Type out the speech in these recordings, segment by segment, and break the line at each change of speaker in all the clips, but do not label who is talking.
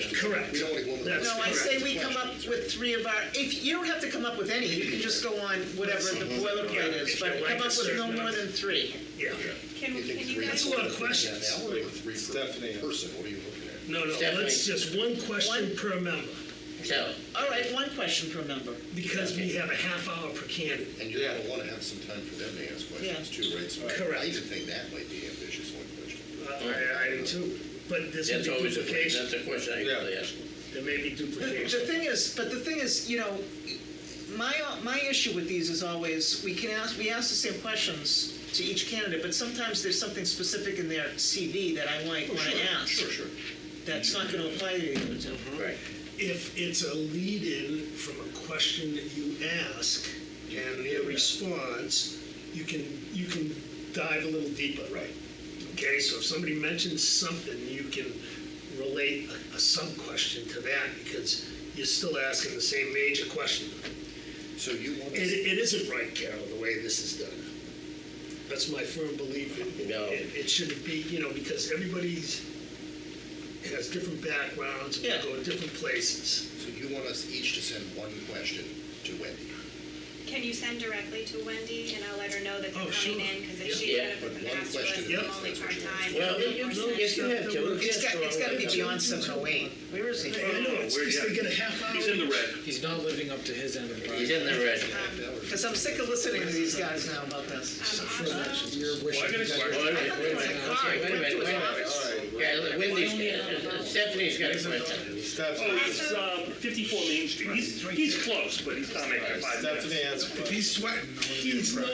Correct.
We don't want to go.
That's
No, I say we
Correct.
come up with three of our, if, you don't have to come up with any, you can just go on whatever the boilerplate
Yeah,
is,
if
but
you like a
come up with no
certain
more
amount.
than three.
Yeah,
Can,
You think
can you
three
guys,
is-
a lot of questions.
Yeah, we're with three
Stephanie.
per person, what are you looking at?
no, no,
Stephanie.
let's just one question
One-
per member,
So,
All right, one question per member.
because we have a half hour per candidate.
And you're
Yeah.
gonna wanna have some time for them to ask questions
Yeah.
too, right? So
Correct.
I even think that might be ambitious, one question.
I, Uh, I I do too, but there's
that's
gonna be
always a,
duplication,
that's a question I
Yeah.
usually ask.
there may be
The the
duplication.
thing is, but the thing is, you know, my, my issue with these is always, we can ask, we ask the same questions to each candidate, but sometimes there's something specific in their CV that I
Oh,
might wanna ask,
Sure, sure.
that's not gonna apply to the other two.
Right.
If it's a lead-in from a question that you ask and their response, you can, you can dive a little deeper.
Right.
Okay, so if somebody mentions something, you can relate a, a sub-question to that because you're still asking the same major question.
So you want
It,
to,
it isn't right, Carol, the way this is done. That's my firm belief. It,
No.
it, it shouldn't be, you know, because everybody's, has different backgrounds, and
Yeah.
go to different places.
so you want us each to send one question to Wendy,
Um,
can you send directly to Wendy and I'll let her know that they're
Oh, sure.
coming in? Because
Yeah.
if she's
Yeah.
gonna put
But
the
one
master
question
list,
is
I'm
that's
only
what you
part-time.
want.
Well,
Yeah,
Or
no,
something.
yes, you have to.
It's got, it's gotta be beyond seven oh eight, where is he?
I know, it's
we're-
just they
yeah.
get a half hour.
He's in the red.
He's not living up to his end of the bargain.
He's in the red.
uh,
Because I'm sick of listening to these guys now about this.
Um, also,
You're wishing
Well, I got
you
a
guys were-
Wait a
question.
I
minute,
thought
wait
they
a
were in
minute.
a car,
Wait a minute,
went to his
wait a minute.
office.
Yeah, look, Wendy's, got- Stephanie's got a question.
Oh,
Stephanie,
it's um, 54 Main Street. He's, he's close, but he's not making five
Stephanie
minutes.
has a question.
He's sweating. He's not,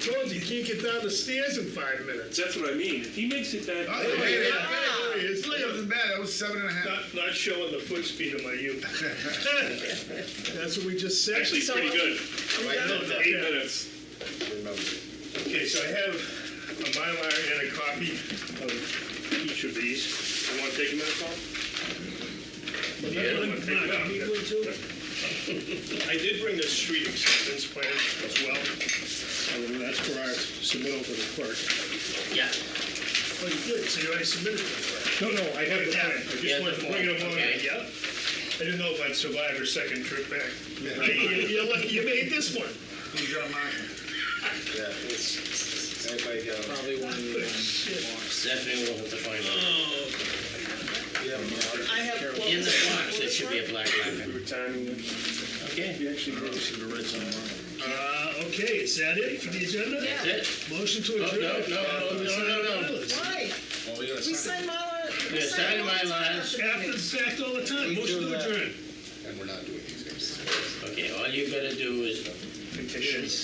told you, he can't get down the stairs in five minutes. Ah!
That's what I mean. If he makes it back,
There he is.
Wasn't bad, that was seven and a half.
not, not showing the foot speed of my youth.
That's what we just said.
Actually, pretty good. Eight minutes.
Remember.
Okay, so I have a Mylar and a copy of each of these. You want to take a minute, Paul? I did bring the street acceptance plan as well. Um, That's for our submittal to the clerk.
Yeah,
Oh, you did, so you already submitted it.
No, no, I have the plan. I
Yeah,
just wanted
the
to bring it
form,
along.
okay.
Yep. I didn't know if I'd survive her second trip back.
You- You're lucky you made this one.
Who's got mine?
Yeah, it's- Everybody got it.
Probably one of the, um,
Stephanie will have to find out.
You have them all.
I have. what
In
was
the
it?
box, there should be a black marker. Okay,
Uh, okay, is that it for the agenda?
that's it.
Motion to
Oh,
adjourn.
no, no, no, no, no, no.
Why?
Oh,
We sign Mylar. we
Yeah, sign
all the
Mylar.
time
After the fact all the time, motion to adjourn.
and we're not doing these guys.
Okay, all you gotta do is
Oh,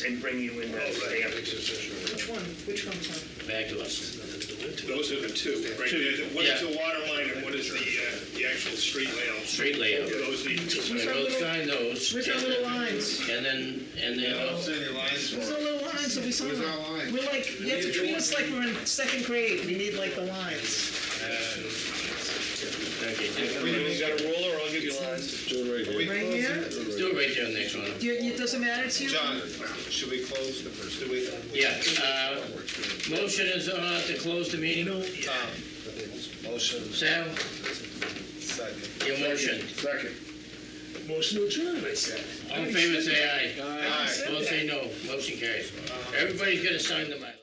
And bring you in that stamp.
Which one, which one, Tom?
back to us.
Those are the two, right? What is the water line and what is the, uh, the actual street layout?
Street layout.
Those are the two.
We both sign those.
Where's our
and
little
then-
lines?
And then, and then,
Don't
also-
send your lines for
Where's our
it.
little lines that we sign?
Where's our line?
We're like, you have to treat us like we're in second grade, we need like the lines.
okay, just
You got a roller, I'll give you lines.
Right here?
do it right there on the next one.
Do you- It doesn't matter to you?
John, should we close the first, do we?
Yeah, uh, motion is, uh, to close the meeting.
Tom, motion,
Sal,
second.
your motion.
Second.
Motion to adjourn, I said.
All in favor, say aye.
Aye.
Opposed, say no. Motion carries. Everybody's gonna sign the Mylar.